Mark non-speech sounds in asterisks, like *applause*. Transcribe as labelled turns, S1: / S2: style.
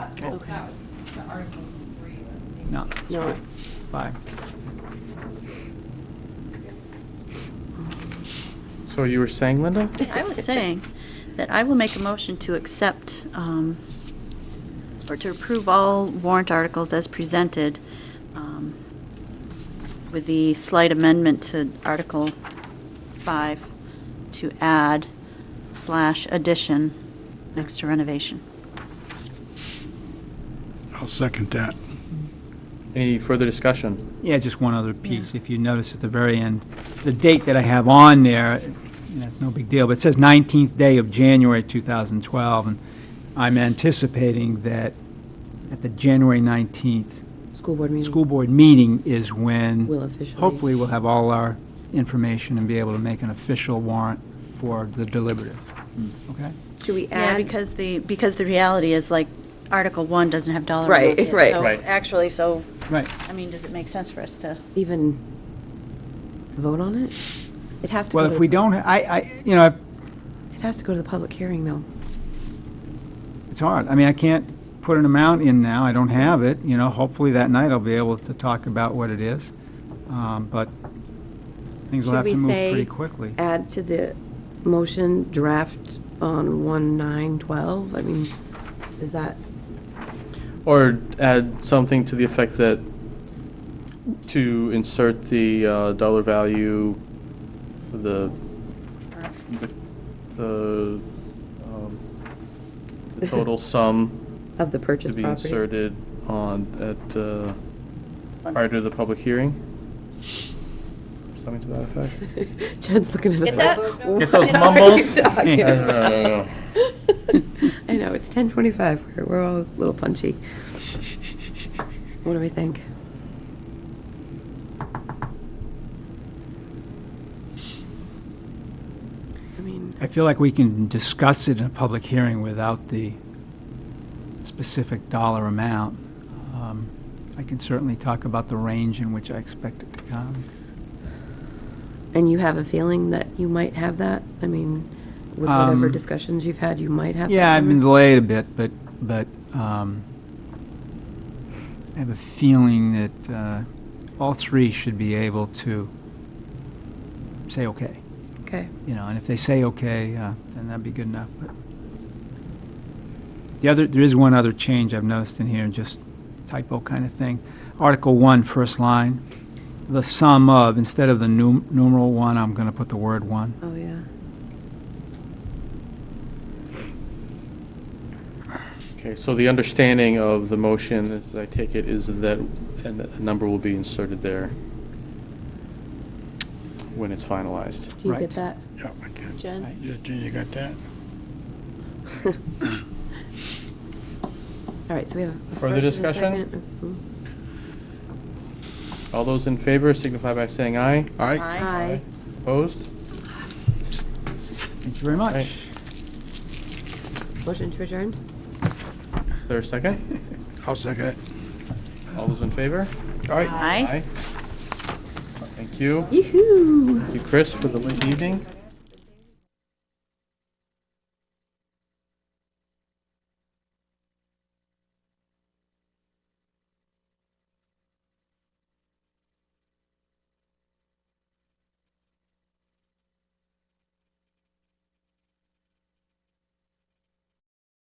S1: Oh,
S2: Okay.
S1: That was the Article Three. that they
S2: No,
S1: just-
S2: that's
S3: No.
S2: fine. Bye.
S4: So you were saying, Linda?
S5: I was saying that I will make a motion to accept um, or to approve all warrant articles as presented um, with the slight amendment to Article 5 to add slash addition next to renovation.
S6: I'll second that.
S4: Any further discussion?
S2: Yeah, just one other piece, if you notice at the very end, the date that I have on there, and that's no big deal, but it says 19th day of January 2012, and I'm anticipating that at the January 19th
S3: School board meeting.
S2: school board meeting is when...
S3: We'll officially-
S2: Hopefully, we'll have all our information and be able to make an official warrant for the deliberative,
S3: Hmm.
S2: okay?
S3: Should we
S5: Yeah,
S3: add?
S5: because the, because the reality is like Article 1 doesn't have dollar
S3: Right,
S5: amounts yet.
S3: right.
S5: So
S4: Right.
S5: Actually, so,
S2: Right,
S5: I mean, does it make sense for us to?
S3: Even vote on it? It has to go
S2: well,
S3: to.
S2: if we don't, I, I, you know, I've
S3: It has to go to the public hearing, though.
S2: It's hard. I mean, I can't put an amount in now. I don't have it, you know. Hopefully that night I'll be able to talk about what it is. Um, But things will
S3: Should
S2: have
S3: we
S2: to move
S3: say
S2: pretty quickly.
S3: Add to the motion draft on one nine twelve? I mean, is that,
S4: Or add something to the effect that to insert the uh, dollar value for the, the- the, um, the total sum
S3: of the
S4: to
S3: purchase
S4: be
S3: property?
S4: inserted on, at, uh,
S5: once-
S4: prior to the public hearing? Something to that effect?
S3: *laughs* Jen's looking at us.
S5: Get that?
S3: like,
S4: Get
S3: "What
S4: those
S3: are you
S4: mumbles?"
S3: talking *laughs*
S2: Hey.
S4: I don't know, I don't
S3: about?"
S4: know.
S3: I know, it's ten twenty-five. We're, we're all a little punchy. What do we think? I mean,
S2: I feel like we can discuss it in a public hearing without the specific dollar amount. Um, I can certainly talk about the range in which I expect it to come.
S3: and you have a feeling that you might have that? I mean, with whatever
S2: Um,
S3: discussions you've had, you might have. that
S2: Yeah, I've been
S3: number?
S2: delayed a bit, but, but um, I have a feeling that uh, all three should be able to say okay,
S3: Okay.
S2: you know, and if they say okay, uh, then that'd be good enough. But The other, there is one other change I've noticed in here, just typo kind of thing. Article one, first line, the sum of, instead of the num- numeral one, I'm going to put the word one.
S3: Oh, yeah.
S4: Okay, so the understanding of the motion, as I take it, is that and a number will be inserted there when it's finalized.
S3: Do you
S2: Right.
S3: get that, *laughs*
S6: Yeah, I can.
S3: Jen?
S6: Yeah, Jen, you got that?
S3: All right, so we have. a
S4: Further
S3: first and a
S4: discussion?
S3: second. Mhm.
S4: All those in favor signify by saying aye.
S6: Aye.
S3: Aye.
S4: Opposed?
S2: Thank you very much.
S4: Right.
S3: Motion to adjourn?
S4: Is there a second?
S6: I'll second it.
S4: All those in favor?
S6: Aye.
S5: Aye.
S4: Thank you.
S3: Yoo-hoo!
S4: Thank you, Chris, for the late evening.